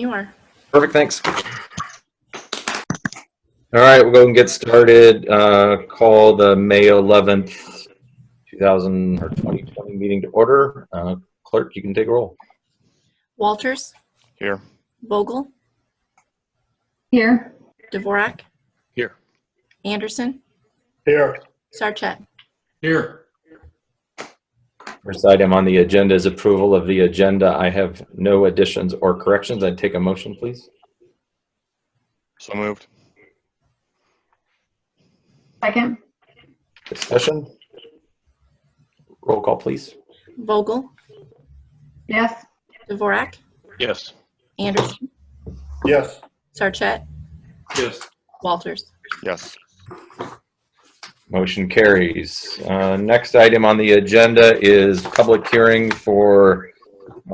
you are. Perfect, thanks. All right, we'll go and get started. Uh, Call the May 11th, 2000, or 2020 meeting to order. Uh, Clerk, you can take a roll. Walters, Here. Vogel, Here. Dvorak, Here. Anderson, Here. Sarchet. Here. First item on the agenda is approval of the agenda. I have no additions or corrections. I'd take a motion, please. So moved. Second. Discussion? Roll call, please. Vogel, Yes. Dvorak, Yes. Anderson, Yes. Sarchet, Yes. Walters. Yes. Motion carries. Uh, Next item on the agenda is public hearing for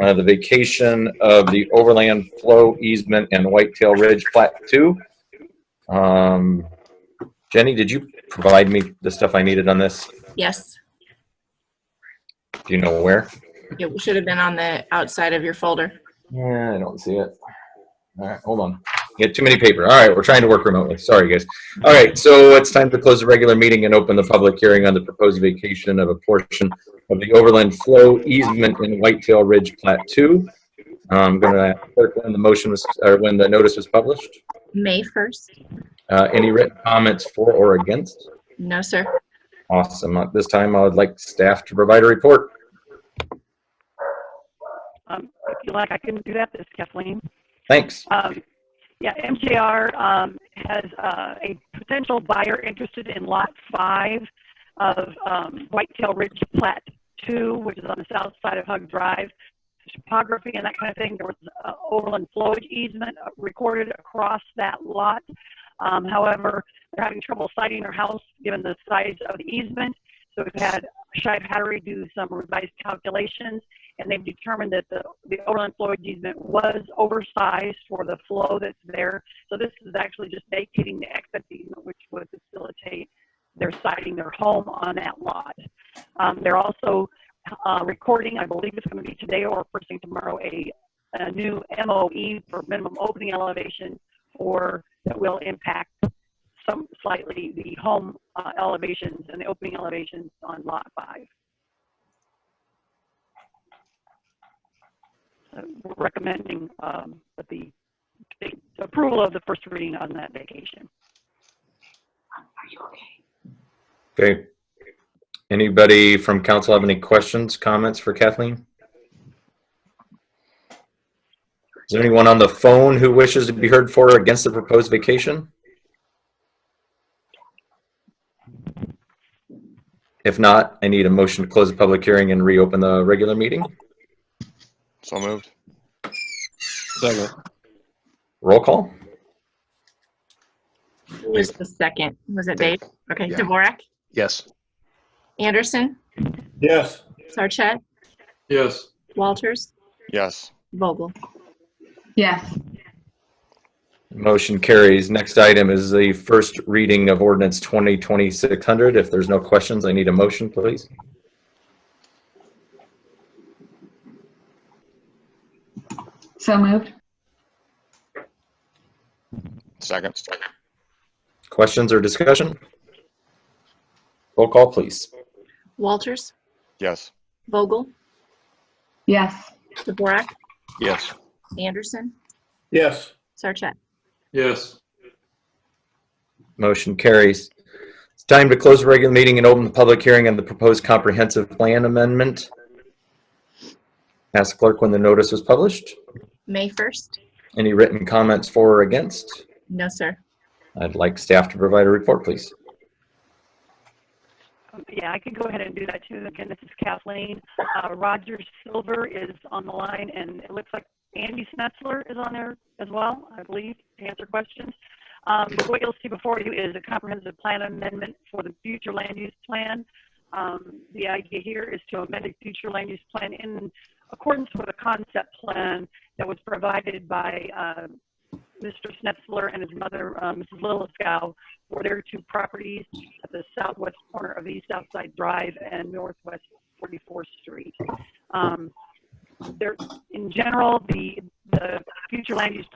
uh, the vacation of the overland flow easement and Whitetail Ridge Plat 2. Um, Jenny, did you provide me the stuff I needed on this? Yes, Do you know where? it should have been on the outside of your folder. Yeah, I don't see it. All right, hold on. Get too many paper. All right, we're trying to work remotely. Sorry, guys. All right, so it's time to close the regular meeting and open the public hearing on the proposed vacation of a portion of the overland flow easement in Whitetail Ridge Plat Two. I'm gonna, clerk, when the motion was, or when the notice was published, May 1st? uh, any written comments for or against? No, sir. Awesome. At this time, I would like staff to provide a report. Um, if you like, I can do that. This is Kathleen. Thanks. Um, yeah, MJR um, has uh, a potential buyer interested in lot five of um, Whitetail Ridge Plat 2, which is on the south side of Hug Drive. Topography and that kind of thing. There was uh, overland flowage easement recorded across that lot. Um, however, they're having trouble siting their house given the size of the easement. So we've had Shive Hattery do some revised calculations and they've determined that the, the overland flow easement was oversized for the flow that's there. So this is actually just vacating the exit easement, which would facilitate their siting their home on that lot. Um, they're also uh, recording, I believe it's going to be today or first thing tomorrow, a, a new MOE for minimum opening elevation for that will impact some slightly the home uh, elevations and the opening elevations on lot five. uh, we're recommending um, that the the approval of the first reading on that vacation. Okay. Anybody from council have any questions, comments for Kathleen? Is there anyone on the phone who wishes to be heard for or against the proposed vacation? If not, I need a motion to close the public hearing and reopen the regular meeting. So moved. Roll call? Who was the second? Was it Dave? Okay, Yeah. Dvorak, Yes. Anderson, Yes. Sarchet, Yes. Walters, Yes. Vogel. Yes. Motion carries. Next item is the first reading of ordinance 2020-600. If there's no questions, I need a motion, please. So moved. Second. Questions or discussion? Roll call, please. Walters, Yes. Vogel, Yes. Dvorak, Yes. Anderson, Yes. Sarchet. Yes. Motion carries. It's time to close the regular meeting and open the public hearing on the proposed comprehensive plan amendment. Ask clerk when the notice was published. May 1st? Any written comments for or against? No, sir. I'd like staff to provide a report, please. Um, Yeah, I could go ahead and do that too. Again, this is Kathleen. Uh, Roger Silver is on the line and it looks like Andy Snetzler is on there as well, I believe, to answer questions. Um, but what you'll see before you is a comprehensive plan amendment for the future land use plan. Um, the idea here is to amend the future land use plan in accordance with a concept plan that was provided by, uh, Mr. Snetzler and his mother, uh, Mrs. Liliskow, for their two properties at the southwest corner of East Outside Drive and Northwest 44th Street. Um, There, in general, the, the future land use